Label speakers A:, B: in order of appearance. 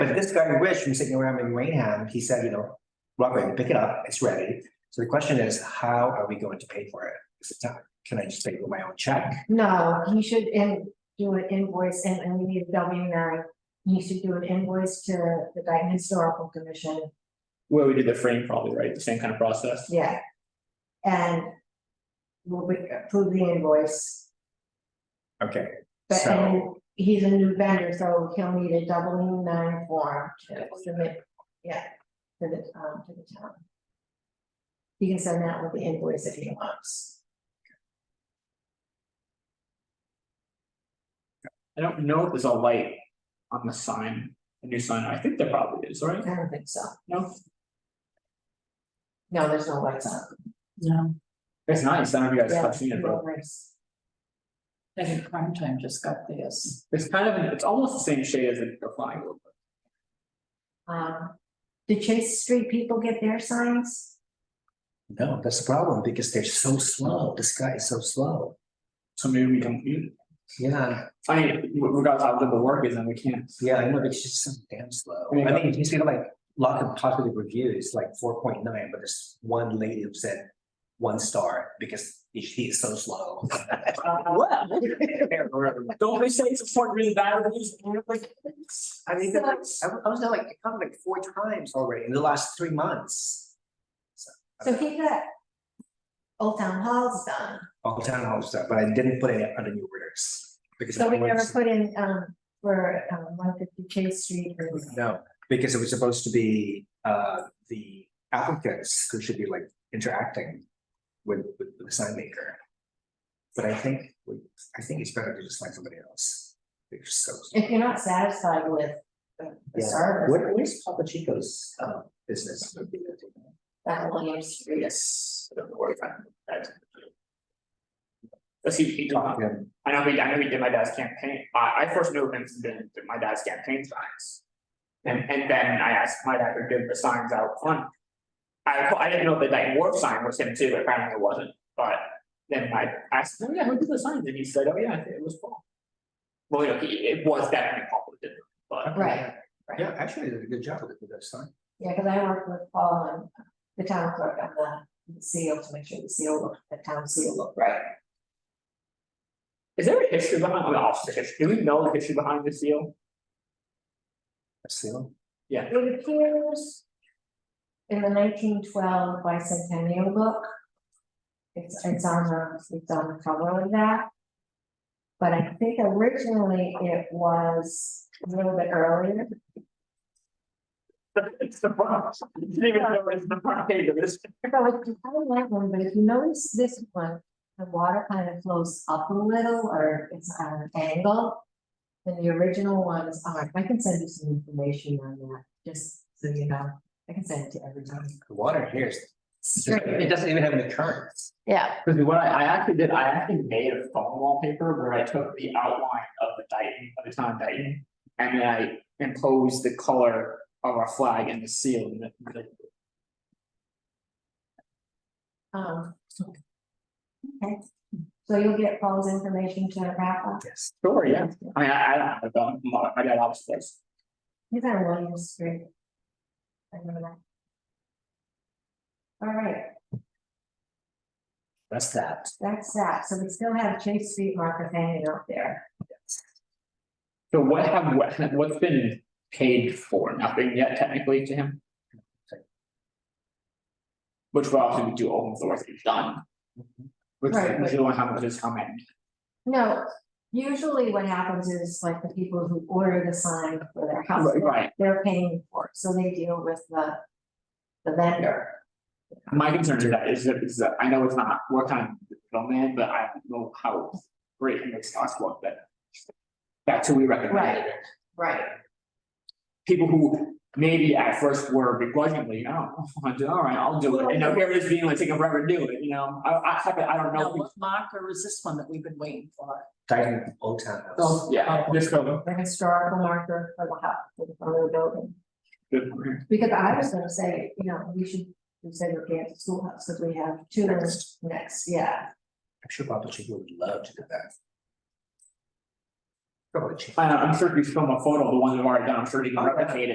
A: But this guy Rich from sitting around in Rainham, he said, you know, Robert, pick it up, it's ready. So the question is, how are we going to pay for it? Is it time? Can I just pay with my own check?
B: No, he should in, do an invoice and, and we need a W nine. He should do an invoice to the Dayton Historical Commission,
C: Where we did the frame probably, right? The same kind of process.
B: yeah. And we'll be- approve the invoice,
A: Okay,
B: but and
A: so,
B: he's a new vendor, so he'll need a W nine form to submit, yeah, to the, um, to the town. He can send that with the invoice if he wants.
C: I don't know if there's a light on the sign, a new sign. I think there probably is, right?
B: I don't think so.
C: No,
B: No, there's no lights on.
D: No,
C: it's nice. I don't know if you guys
B: Yeah,
C: have seen it, but
B: no lights.
D: I think prime time just got this.
C: it's kind of, an- it's almost the same shade as the the flying wheel.
B: Um, did Chase Street people get their signs?
A: no, that's the problem because they're so slow. This guy is so slow.
C: So maybe we don't need it.
A: Yeah,
C: I mean, regardless of how good the work is, and we can't.
A: yeah, I know, but it's just so damn slow.
C: I mean,
A: I think you see like lot of positive reviews, like four point nine, but there's one lady who said one star because he is so slow.
C: What? Don't they say it's important to read the bad reviews?
A: I mean, they're like- I was I was there like, I come like four times already in the last three months.
B: So he got Old Town Hall's done,
A: All the town hall stuff, but I didn't put it under new orders. because
B: so we
A: it was-
B: never put in, um, for, um, one fifty Chase Street. or-
A: No, because it was supposed to be uh the applicants who should be like interacting with with the sign maker. But I think, we- I think it's better to just find somebody else. They're just so.
B: If you're not satisfied with the the
A: Yeah.
B: service,
A: Where where's Papa Chico's uh business?
B: that William Street.
C: Yes. I don't know where I found that. Let's see, if he did
A: Talk
C: not-
A: to him.
C: I know we, I know we did my dad's campaign, I, I first knew him from doing my dad's campaign signs. And, and then I asked my dad to give the signs out front. I, I didn't know the like wharf sign was him too, apparently it wasn't, but then I asked, him, oh yeah, who did the signs? And he said, oh yeah, it was Paul. Well, you know, he- it was definitely Paul who did it, but
B: Right,
A: Yeah, actually, they did a good job with the sign.
B: yeah, cause I worked with Paul and the town clerk on the seal to make sure the seal looked, the town seal looked right.
C: is there a history behind, I mean, obviously, history- do we know the history behind the seal?
A: That's the only-
C: Yeah,
B: It appears in the nineteen twelve bicentennial book. It's, it's on the, it's on the cover of that. But I think originally it was a little bit earlier.
C: it's the front, You didn't even know it's the front page of this.
B: So it's kind of like one, but if you notice this one, the water kind of flows up a little or it's at an angle. And the original ones are, I can send you some information on that, just so you know, I can send it to everybody.
A: The water here is, it doesn't even have any currents.
B: Yeah.
C: Cause what I, I actually did, I actually made a phone wallpaper where I took the outline of the Dayton, of the town of Dayton. And then I imposed the color of our flag and the seal and the- the,
B: Um. Okay, so you'll get Paul's information to Rafa,
A: Yes.
C: sure, yeah, I mean, I, I don't have a phone, my, my dad obviously does.
B: he's on William Street. I remember that. All right,
A: That's that.
B: that's that, so we still have Chase Street marker hanging out there,
C: So what have, what, what's been paid for, nothing yet technically to him? Which will obviously do all of the work that he's done, which,
B: Right,
C: which
B: but-
C: is only how much is coming,
B: no. Usually what happens is like the people who order the sign for their house,
C: right? right.
B: they're paying for it, so they deal with the. The vendor,
C: My concern is that is that is that I know it's not work time middleman, but I don't know how great it makes us look, but. That's who we recommend.
B: Right. right,
C: People who maybe at first were begrudgingly, oh, I'll do, all right, I'll do it, and now here it is being like taking forever to do it, you know, I I have I don't
D: No,
C: know.
D: what marker is this one that we've been waiting for?
A: Titan Old Town House.
C: So, yeah, this go.
B: the historical marker for the house, for the front of the building.
C: uh,
B: Because I was gonna say, you know, we should consider Kansas Schoolhouse, because we have two
A: Next.
B: next, yeah.
A: I'm sure Papa Chico would love to do that. Probably cheap.
C: I know, I'm sure if you film a photo of the one we've already done, I'm sure you can replicate it.